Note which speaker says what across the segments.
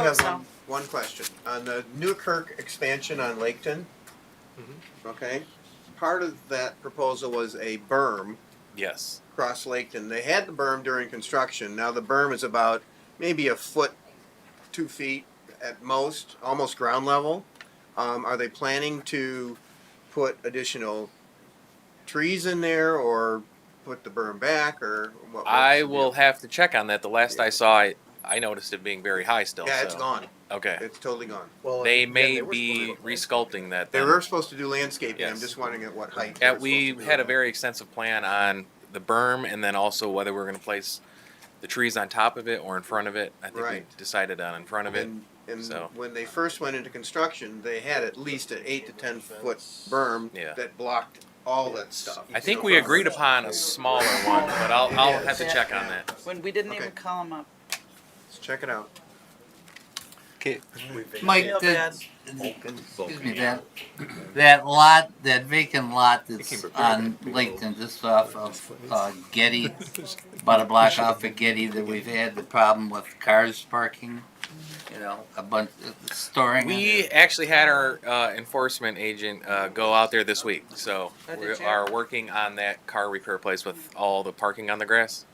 Speaker 1: I have
Speaker 2: So-
Speaker 1: one, one question. On the Newkirk expansion on Laketon,
Speaker 3: Mm-hmm.
Speaker 1: okay, part of that proposal was a berm
Speaker 3: Yes.
Speaker 1: across Laketon. They had the berm during construction. Now the berm is about maybe a foot, two feet at most, almost ground level. Um, are they planning to put additional trees in there or put the berm back or what?
Speaker 3: I will have to check on that. The last I saw it, I noticed it being very high still.
Speaker 1: Yeah, it's
Speaker 3: so-
Speaker 1: gone.
Speaker 3: Okay.
Speaker 1: It's totally gone.
Speaker 4: Well,
Speaker 3: They
Speaker 4: and
Speaker 3: may
Speaker 4: they were
Speaker 3: be
Speaker 4: supposed to-
Speaker 3: resculpting that.
Speaker 1: They
Speaker 3: then.
Speaker 1: were supposed to do landscaping, I'm
Speaker 3: Um, Yes.
Speaker 1: just wondering at what height. they
Speaker 3: Yeah,
Speaker 1: were
Speaker 3: we
Speaker 1: supposed to do
Speaker 3: had a
Speaker 1: that.
Speaker 3: very extensive plan on the berm and then also whether we're gonna place the trees on top of it or in front of it. I think we
Speaker 1: Right.
Speaker 3: decided on in front of it.
Speaker 1: And, and
Speaker 3: so.
Speaker 1: when they first went into construction, they had at least an eight to ten foot berm
Speaker 3: Yeah.
Speaker 1: that blocked all that stuff.
Speaker 3: I think we agreed upon a smaller one, but I'll, I'll have to check on that.
Speaker 2: When we didn't even
Speaker 1: Okay.
Speaker 2: call him up.
Speaker 1: Let's check it out.
Speaker 5: Mike,
Speaker 2: Feel bad.
Speaker 5: that, excuse me, that, that lot, that vacant lot that's on Lincoln, just off of, uh, Getty, about a block off of Getty that we've had the problem with cars parking, you know, a bunch, uh, storing.
Speaker 3: We actually had our uh, enforcement agent uh, go out there this week, so
Speaker 2: Oh,
Speaker 3: we
Speaker 2: did you?
Speaker 3: are working on that car repair place with all the parking on the grass.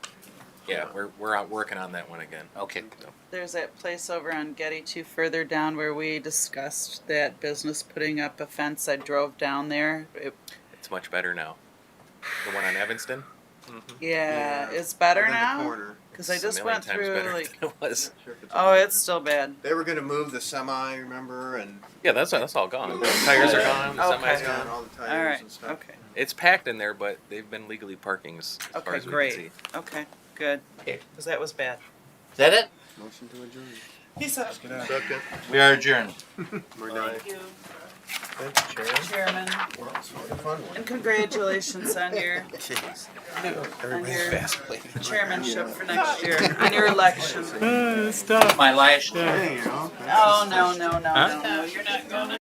Speaker 3: Yeah, we're we're out working on that one again.
Speaker 5: Okay,
Speaker 2: There's that place over on Getty two further down where we discussed that business putting up a fence. I drove down there. It,
Speaker 3: It's much better now. The one on Evanston.
Speaker 2: yeah,
Speaker 1: Yeah.
Speaker 2: it's better
Speaker 1: Right in the
Speaker 2: now
Speaker 1: corner.
Speaker 2: because I
Speaker 3: It's a
Speaker 2: just
Speaker 3: million
Speaker 2: went
Speaker 3: times
Speaker 2: through
Speaker 3: better
Speaker 2: like.
Speaker 3: than it was.
Speaker 1: Not sure if it's-
Speaker 2: Oh, it's still bad.
Speaker 1: They were gonna move the semi, remember, and
Speaker 3: Yeah, that's that's all gone. The tires are gone. The
Speaker 2: Okay.
Speaker 3: semi's
Speaker 1: it's gone,
Speaker 3: gone.
Speaker 1: all the
Speaker 2: All
Speaker 1: tires
Speaker 2: right.
Speaker 1: and stuff.
Speaker 2: Okay.
Speaker 3: It's packed in there, but they've been legally parking as, as far
Speaker 2: Okay,
Speaker 3: as we
Speaker 2: great.
Speaker 3: can see.
Speaker 2: Okay. Good.
Speaker 5: Okay.
Speaker 2: Because that was bad.
Speaker 5: is that it?
Speaker 1: Motion to adjourn.
Speaker 2: Peace out.
Speaker 1: Second,
Speaker 5: We are adjourned.
Speaker 1: we're done.
Speaker 2: Thank you,
Speaker 1: Thank you, Sharon.
Speaker 2: Chairman,
Speaker 1: Well, it's a fun one.
Speaker 2: and congratulations on your
Speaker 1: Jeez.
Speaker 2: on
Speaker 1: Everybody's
Speaker 2: your
Speaker 1: fast.
Speaker 2: chairmanship for next year, on your election.
Speaker 5: My last.
Speaker 1: Hey, you know, that's-
Speaker 2: Oh no no no
Speaker 6: Huh?
Speaker 2: no no! You're not going.